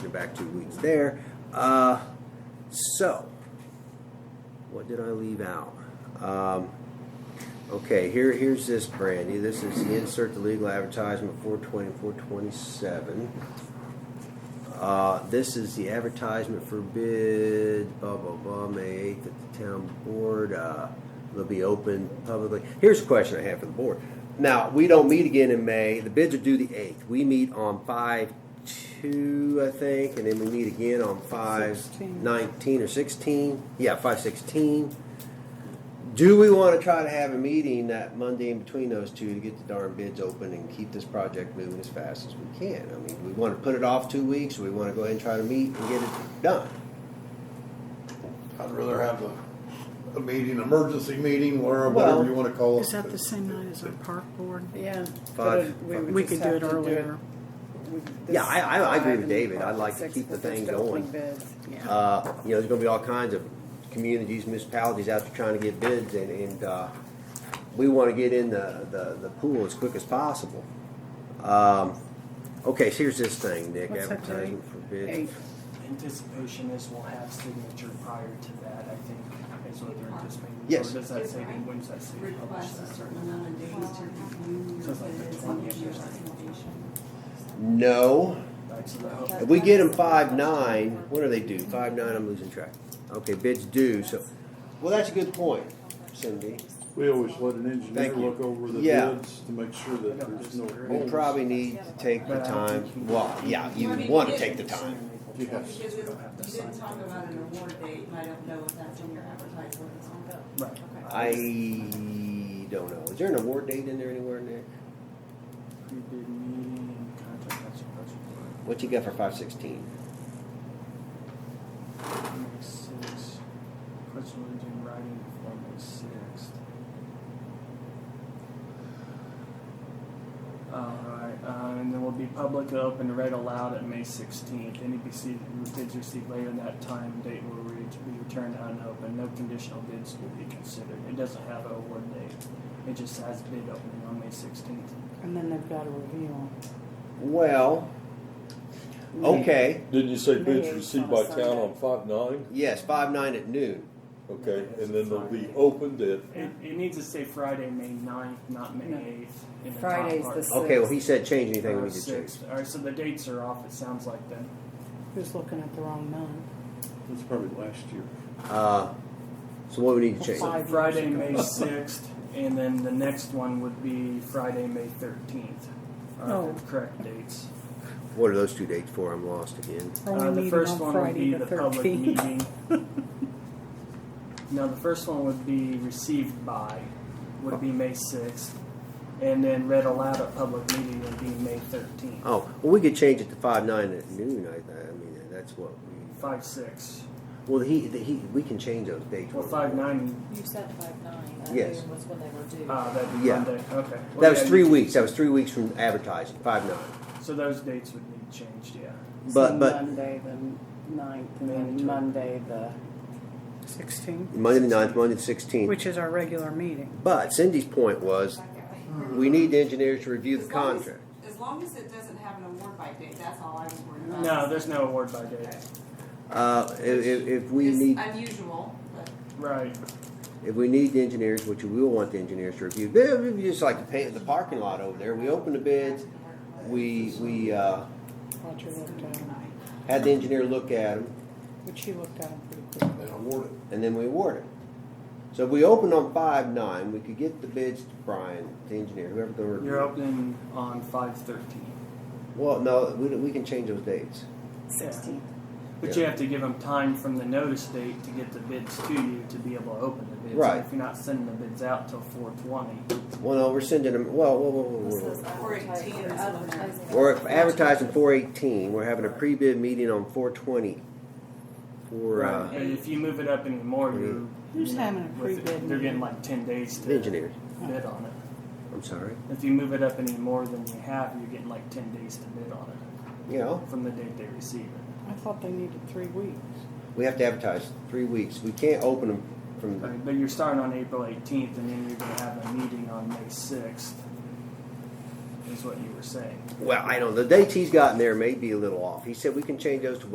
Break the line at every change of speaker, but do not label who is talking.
back two weeks there. Uh, so, what did I leave out? Um, okay, here here's this Brandy. This is the insert the legal advertisement 420 427. Uh, this is the advertisement for bid, blah, blah, blah, May 8th at the town board. Uh, they'll be open publicly. Here's a question I have for the board. Now, we don't meet again in May. The bids are due the 8th. We meet on 5 2, I think, and then we meet again on 5
16.
19 or 16. Yeah, 5 16. Do we want to try to have a meeting that Monday in between those two to get the darn bids open and keep this project moving as fast as we can? I mean, we want to put it off two weeks, or we want to go ahead and try to meet and get it done?
I'd rather have a, a meeting, emergency meeting, or
Well,
whatever you wanna call it.
Is that the same night as our park board?
Yeah.
Five.
but would
We
just
could do
have
it
to
earlier.
we- this
Yeah, I- I- I agree
five
with
and
David. I'd like to
six,
keep the
but there's
thing
still
going.
open bids.
Yeah.
Uh, you know, there's gonna be all kinds of communities, municipalities out there trying to get bids, and, and, uh, we wanna get in the, the, the pool as quick as possible. Um, okay, so here's this thing, Nick,
What's that,
advertising for
Eight.
bids.
Anticipation is we'll have signature prior to that, I think, is what they're anticipating.
Yes.
Or does that say, when does that say
request a
published?
certain amount of days to review your bids and give your recommendation.
No,
Right, so the-
if we get them five nine, what do they do? Five nine, I'm losing track. Okay, bids due, so, well, that's a good point, Cindy.
We always let an engineer
Thank you.
look over the
Yeah.
bids to make sure that there's no
We
holes.
probably need to take the
But I don't think
time,
you-
well, yeah, you wanna take the time.
Yes.
Because if
We don't have to
you
sign
didn't talk
it.
about an award date, and I don't know if that's in your advertisement or not.
Right.
I don't know. Is there an award date in there anywhere in there?
Pre-bid meeting, contract action, budget,
What you got for five sixteen?
May sixth, question will be in writing before May sixth. Alright, uh, and then will be public open to read aloud at May sixteenth. Any bids bids received later in that time and date will re- be returned unopened. No conditional bids will be considered. It doesn't have an award date. It just has bid opening on May sixteenth.
And then they've got to review them.
Well, okay,
Didn't you say bids
Maybe
received
on a
by town on five nine?
yes, five nine at noon.
Okay, and then they'll be
Friday.
opened at,
It, it needs to say Friday, May 9th, not May
No.
8th. in the top
Friday's
part.
the sixth.
Okay, well, he said change anything
Or
we could change.
sixth. Uh, All right, so the dates are off, it sounds like then.
Who's looking at the wrong month?
That's probably last year.
Uh, so what we need to change?
Five.
So
years
Friday,
ago.
May 6th, and then the next one would be Friday, May 13th. are the
Oh.
Correct dates.
What are those two dates for? I'm lost again.
Are we
Uh, the
meeting
first
on
one would
Friday
be the public
13th?
meeting. Now, the first one would be received by, would be May 6th, and then read aloud at public meeting would be May 13th.
Oh, well, we could change it to five nine at noon. I, I mean, that's what we.
5, 6.
Well, he, he, we can change those dates.
Well,
when we
five
want.
nine.
You said five nine,
that Yes.
was when they were due.
Uh, that'd be
Yeah.
Monday. Okay. Well,
That was
yeah,
three
you-
weeks. That was three weeks from advertising. Five nine.
So those dates would need changed. Yeah.
But-
So
but-
Monday the ninth and
Mandatory.
then Monday the,
Sixteen,
Monday the 9th, Monday the sixteenth.
which is our regular meeting.
But Cindy's point was, we need the engineers to review the contract.
Hmm. As long as it doesn't have an award by date, that's all I was worried about.
No, there's no award by date.
Uh, if, if- if we
It's
need,
unusual, but
Right.
if we need the engineers, which we will want the engineers to review, but it'd be just like the pa- the parking lot over there, we opened the bids, we, we, uh,
Roger looked at them,
had the engineer look at them,
which he looked at them pretty quick.
Then award it.
and then we awarded. So if we opened on five nine, we could get the bids to Brian, the engineer, whoever the
You're
review.
opening on five thirteen,
Well, no, we, we can change those dates.
Sixteenth.
but
Yeah.
you have to give them time from the notice date to get the bids to you to be able to open the bids.
Right.
If you're not sending the bids out till four twenty,
Well, no, we're sending them, well, whoa, whoa, whoa, whoa, whoa.
four eighteen is when they're.
We're advertising four eighteen, we're having a pre-bid meeting on four twenty. For, uh,
And if you move it up anymore, you're
Who's having a
with it-
pre-bid
They're
meeting?
getting like ten days to
engineers,
bid on it.
I'm sorry,
If you move it up any more than you have, you're getting like ten days to bid on it
you know,
from the date they receive it.
I thought they needed three weeks.
we have to advertise three weeks, we can't open them from,
Right, but you're starting on April 18th, and then you're going to have a meeting on May 6th. is what you were saying.
Well, I know the dates he's gotten there may be a little off. He said we can change those to